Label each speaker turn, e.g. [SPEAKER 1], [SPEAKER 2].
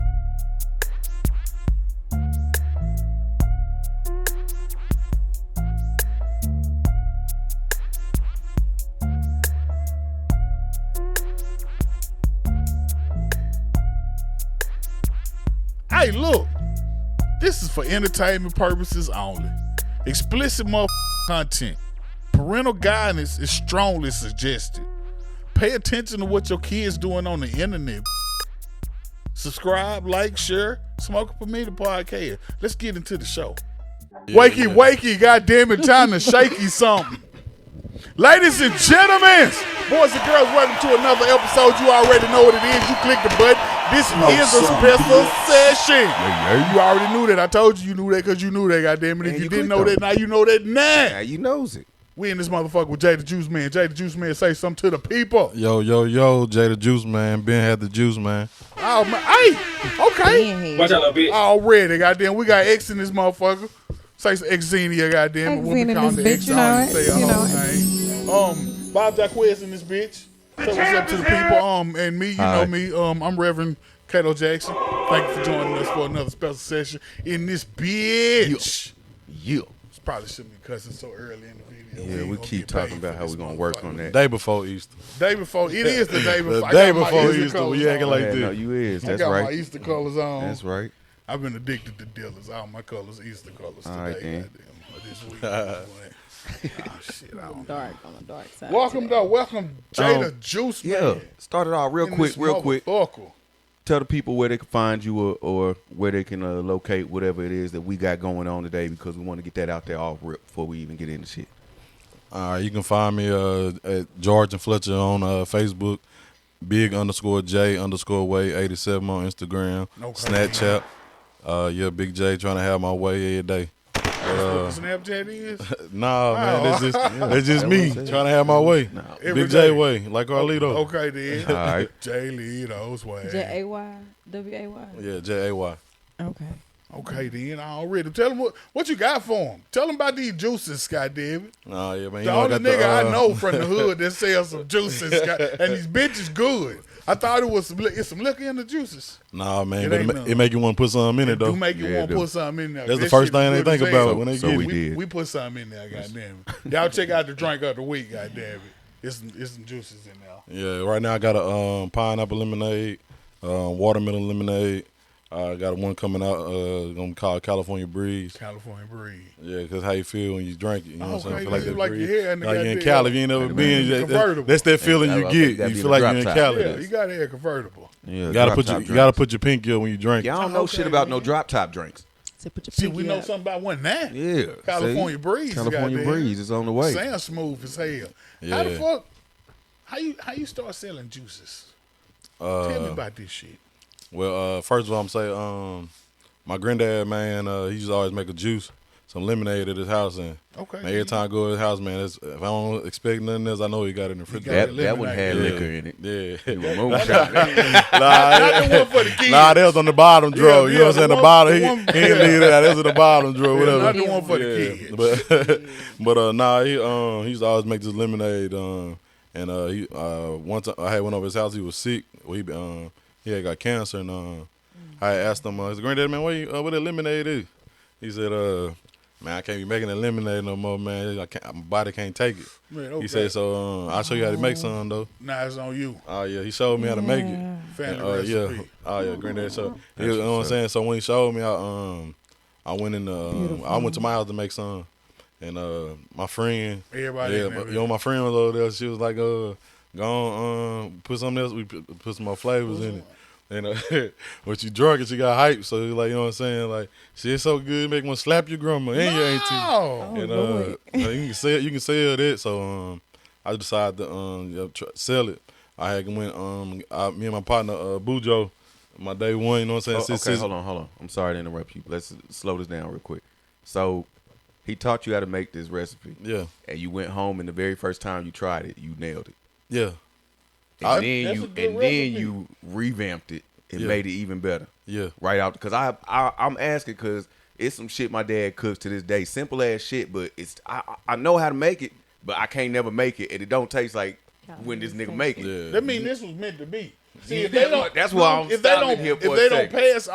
[SPEAKER 1] Hey, look, this is for entertainment purposes only. Explicit mother content. Parental guidance is strongly suggested. Pay attention to what your kids doing on the internet. Subscribe, like, share, smoke for me the podcast. Let's get into the show. wakey, wakey, goddamn it, time to shakey something. Ladies and gentlemen, boys and girls, welcome to another episode. You already know what it is. You click the button. This is a
[SPEAKER 2] son,
[SPEAKER 1] special
[SPEAKER 2] bitch.
[SPEAKER 1] session. You already knew that. I told you you knew that because you knew that, goddamn it. If
[SPEAKER 2] And
[SPEAKER 1] you,
[SPEAKER 2] you
[SPEAKER 1] didn't
[SPEAKER 2] clicked
[SPEAKER 1] know that, now you know that
[SPEAKER 2] Now
[SPEAKER 1] now.
[SPEAKER 2] you knows it.
[SPEAKER 1] We in this motherfucker with Jay the Juice Man. Jay the Juice Man say something to the people.
[SPEAKER 3] Yo, yo, yo, Jada Juice Man. Ben had the juice, man.
[SPEAKER 1] Oh, man. Hey, okay.
[SPEAKER 4] Being here.
[SPEAKER 5] Watch out, little bitch.
[SPEAKER 1] Already, goddamn. We got X in this motherfucker. Say some Xenia, goddamn. it. When we
[SPEAKER 4] Xenia
[SPEAKER 1] call
[SPEAKER 4] this
[SPEAKER 1] the X,
[SPEAKER 4] bitch, you
[SPEAKER 1] I
[SPEAKER 4] know
[SPEAKER 1] don't
[SPEAKER 4] it.
[SPEAKER 1] say
[SPEAKER 4] You
[SPEAKER 1] her
[SPEAKER 4] know
[SPEAKER 1] whole name. Um, Bob Jacquez in this bitch. Say what's up to the people. Um, and me, you know
[SPEAKER 3] Hi.
[SPEAKER 1] me. Um, I'm Reverend Cato Jackson. Thank you for joining us for another special session in this bitch.
[SPEAKER 2] You.
[SPEAKER 1] Probably shouldn't be cussing so early in the video.
[SPEAKER 2] Yeah,
[SPEAKER 1] ain't
[SPEAKER 2] we
[SPEAKER 1] gonna
[SPEAKER 2] keep
[SPEAKER 1] get paid
[SPEAKER 2] talking about
[SPEAKER 1] for
[SPEAKER 2] how
[SPEAKER 1] this
[SPEAKER 2] we're gonna work on
[SPEAKER 1] motherfucker.
[SPEAKER 2] that.
[SPEAKER 3] Day before Easter.
[SPEAKER 1] Day before, it is the day before.
[SPEAKER 3] The
[SPEAKER 1] I
[SPEAKER 3] day
[SPEAKER 1] got my
[SPEAKER 3] before
[SPEAKER 1] Easter
[SPEAKER 3] Easter,
[SPEAKER 1] colors
[SPEAKER 3] we acting
[SPEAKER 1] on.
[SPEAKER 3] like
[SPEAKER 2] Yeah,
[SPEAKER 3] this.
[SPEAKER 2] no, you is.
[SPEAKER 1] I
[SPEAKER 2] That's
[SPEAKER 1] got my
[SPEAKER 2] right.
[SPEAKER 1] Eastern colors on.
[SPEAKER 2] That's right.
[SPEAKER 1] I've been addicted to Dillard's. All my colors, Easter colors
[SPEAKER 2] All right,
[SPEAKER 1] today.
[SPEAKER 2] then.
[SPEAKER 1] goddamn, or This week. oh shit! I don't know.
[SPEAKER 4] Dark on the dark side.
[SPEAKER 1] Welcome though, welcome Jada
[SPEAKER 2] Um,
[SPEAKER 1] Juice.
[SPEAKER 2] Yeah.
[SPEAKER 1] Man.
[SPEAKER 2] Start it off real
[SPEAKER 1] In
[SPEAKER 2] quick,
[SPEAKER 1] this
[SPEAKER 2] real quick.
[SPEAKER 1] motherfucker.
[SPEAKER 2] Tell the people where they can find you or, or where they can uh, locate whatever it is that we got going on today because we want to get that out there all rip before we even get into shit.
[SPEAKER 3] All right, you can find me uh, at George and Fletcher on uh, Facebook, Big underscore J underscore Way eighty seven on Instagram,
[SPEAKER 1] Okay.
[SPEAKER 3] Snapchat. Uh, yeah, Big J trying to have my way every day.
[SPEAKER 1] That's
[SPEAKER 2] Uh,
[SPEAKER 1] what Snapchat is.
[SPEAKER 3] Nah, man, that's just that's just
[SPEAKER 2] That
[SPEAKER 3] me
[SPEAKER 2] was it.
[SPEAKER 3] trying to have my way.
[SPEAKER 1] Every
[SPEAKER 3] Big J
[SPEAKER 1] day.
[SPEAKER 3] way, like Carlito.
[SPEAKER 1] Okay then.
[SPEAKER 2] All right.
[SPEAKER 1] Jay Lito's way.
[SPEAKER 4] J A Y W A Y.
[SPEAKER 3] Yeah, J A Y.
[SPEAKER 4] Okay.
[SPEAKER 1] Okay then. Already. Tell them what, what you got for him. Tell them about these juices, Scott David.
[SPEAKER 3] Nah, yeah, man. you
[SPEAKER 1] The
[SPEAKER 3] know I
[SPEAKER 1] only
[SPEAKER 3] got
[SPEAKER 1] nigga
[SPEAKER 3] uh,
[SPEAKER 1] I know from the hood that sells some juices, Scott, and these bitches good. I thought it was some, li- it's some liquor in the juices.
[SPEAKER 3] Nah, man,
[SPEAKER 1] It
[SPEAKER 3] but it,
[SPEAKER 1] ain't
[SPEAKER 3] ma-
[SPEAKER 1] none.
[SPEAKER 3] it make you want to put something in it though.
[SPEAKER 1] Do make you
[SPEAKER 2] Yeah,
[SPEAKER 1] want to
[SPEAKER 2] dude.
[SPEAKER 1] put something in there.
[SPEAKER 3] That's the
[SPEAKER 1] That
[SPEAKER 3] first
[SPEAKER 1] shit
[SPEAKER 3] thing they
[SPEAKER 1] good as
[SPEAKER 3] think
[SPEAKER 1] hell.
[SPEAKER 3] about when they
[SPEAKER 2] So
[SPEAKER 3] get
[SPEAKER 2] we
[SPEAKER 3] it.
[SPEAKER 1] We,
[SPEAKER 2] did.
[SPEAKER 1] we put something in there, goddamn it. Y'all check out the drink of the week, goddamn it. It's some, it's some juices in there.
[SPEAKER 3] Yeah, right now I got a um, pineapple lemonade, um, watermelon lemonade. I got one coming out. Uh, gonna call it California Breeze.
[SPEAKER 1] California breed.
[SPEAKER 3] Yeah, cause how you feel when you drink it. You know what I'm saying?
[SPEAKER 1] Okay,
[SPEAKER 3] Feel
[SPEAKER 1] you
[SPEAKER 3] that
[SPEAKER 1] like
[SPEAKER 3] breeze.
[SPEAKER 1] your hair in the
[SPEAKER 3] Like you in
[SPEAKER 1] goddamn-
[SPEAKER 3] Cali, if you ain't never been. that-
[SPEAKER 1] Convertible.
[SPEAKER 3] that- That's that feeling
[SPEAKER 2] Yeah,
[SPEAKER 3] you
[SPEAKER 2] I think
[SPEAKER 3] get.
[SPEAKER 2] that'd
[SPEAKER 3] You
[SPEAKER 2] be
[SPEAKER 3] feel
[SPEAKER 2] the
[SPEAKER 3] like
[SPEAKER 2] drop
[SPEAKER 3] you're in
[SPEAKER 2] top.
[SPEAKER 3] Cali.
[SPEAKER 1] Yeah, you got to have convertible.
[SPEAKER 2] Yeah,
[SPEAKER 3] You gotta put your you gotta put your pinky up when you drink.
[SPEAKER 2] Y'all don't know shit about no drop top drinks.
[SPEAKER 4] So put your
[SPEAKER 1] See,
[SPEAKER 4] pinky
[SPEAKER 1] we know
[SPEAKER 4] up.
[SPEAKER 1] something about one now.
[SPEAKER 2] Yeah,
[SPEAKER 1] California
[SPEAKER 2] see?
[SPEAKER 1] breeze.
[SPEAKER 2] California
[SPEAKER 1] goddamn.
[SPEAKER 2] breeze is on the way.
[SPEAKER 1] Sounds smooth as hell. How the
[SPEAKER 3] Yeah.
[SPEAKER 1] fuck? How you how you start selling juices?
[SPEAKER 3] Uh,
[SPEAKER 1] Tell me about this shit.
[SPEAKER 3] Well, uh, first of all, I'm saying um, my granddad, man, uh, he used to always make a juice, some lemonade at his house, and
[SPEAKER 1] Okay.
[SPEAKER 3] man, every time I go to his house, man, that's, if I don't expect nothing else, I know he got it in the
[SPEAKER 1] got
[SPEAKER 3] refrigerator.
[SPEAKER 2] That that one had
[SPEAKER 3] Yeah.
[SPEAKER 2] liquor in it.
[SPEAKER 3] Yeah.
[SPEAKER 2] You a moonshot.
[SPEAKER 1] Not the one for the kids.
[SPEAKER 3] Nah, that was on the bottom drawer.
[SPEAKER 1] Yeah,
[SPEAKER 3] you know what
[SPEAKER 1] yeah,
[SPEAKER 3] I'm saying?
[SPEAKER 1] the
[SPEAKER 3] The,
[SPEAKER 1] one-
[SPEAKER 3] bottom.
[SPEAKER 1] the
[SPEAKER 3] He, he
[SPEAKER 1] one-
[SPEAKER 3] didn't leave that. That was in the bottom drawer.
[SPEAKER 1] not
[SPEAKER 3] Whatever.
[SPEAKER 1] the one for the
[SPEAKER 3] Yeah,
[SPEAKER 1] kids.
[SPEAKER 3] but but uh, nah, he um he used to always make this lemonade. Um, and uh, he uh once I had went over his house. He was sick. Well, he um he had got cancer, and um I had asked him, uh, his granddad man, what you, uh, what that lemonade is? He said, uh. Man, I can't be making that lemonade no more, man. I can't, my body can't take it.
[SPEAKER 1] Man, okay.
[SPEAKER 3] He said, so um, I'll show you how to make some, though.
[SPEAKER 1] Nah, it's on you.
[SPEAKER 3] Oh, yeah. He showed me how to make
[SPEAKER 4] Yeah.
[SPEAKER 3] it.
[SPEAKER 1] Family
[SPEAKER 3] And, uh,
[SPEAKER 1] recipe.
[SPEAKER 3] yeah. Oh yeah, granddad. So
[SPEAKER 2] That's
[SPEAKER 3] you know what I'm
[SPEAKER 2] what's
[SPEAKER 3] saying. So when he showed me, I um, I went in the, um, I went to my house to make some, and uh, my friend,
[SPEAKER 1] Everybody
[SPEAKER 3] yeah,
[SPEAKER 1] in there,
[SPEAKER 3] but, you
[SPEAKER 1] yeah.
[SPEAKER 3] know, my friend was over there. She was like, uh, go on, um, put something else. We put, put some more flavors in it. And uh, when she drunk and she got hype, so like you know what I'm saying, like she is so good, make one slap your grandma and your auntie
[SPEAKER 1] No.
[SPEAKER 3] and
[SPEAKER 4] Oh,
[SPEAKER 3] uh,
[SPEAKER 4] Lord.
[SPEAKER 3] you can sell you can sell that. So um, I decided to um yeah, tr- sell it. I had went um I, me and my partner uh Bujo, my day one. You know what I'm saying?
[SPEAKER 2] Oh,
[SPEAKER 3] Since-
[SPEAKER 2] okay,
[SPEAKER 3] since-
[SPEAKER 2] hold on, hold on. I'm sorry to interrupt you. Let's slow this down real quick. So, he taught you how to make this recipe,
[SPEAKER 3] Yeah,
[SPEAKER 2] and you went home, and the very first time you tried it, you nailed it.
[SPEAKER 3] yeah,
[SPEAKER 2] And
[SPEAKER 3] I-
[SPEAKER 2] then
[SPEAKER 1] That's a
[SPEAKER 2] you,
[SPEAKER 1] good
[SPEAKER 2] and
[SPEAKER 1] recipe.
[SPEAKER 2] then you revamped it and
[SPEAKER 3] Yeah.
[SPEAKER 2] made it even better.
[SPEAKER 3] yeah,
[SPEAKER 2] Right out, because I, I I'm asking because it's some shit my dad cooks to this day. Simple ass shit, but it's I I know how to make it, but I can't never make it, and it don't taste like when this nigga make it.
[SPEAKER 3] yeah.
[SPEAKER 1] That mean this was meant to be. See, if
[SPEAKER 2] That's
[SPEAKER 1] they don't,
[SPEAKER 2] what- that's why I'm
[SPEAKER 1] if they
[SPEAKER 2] stopping
[SPEAKER 1] don't,
[SPEAKER 2] here
[SPEAKER 1] if
[SPEAKER 2] for a
[SPEAKER 1] they don't
[SPEAKER 2] second.
[SPEAKER 1] pass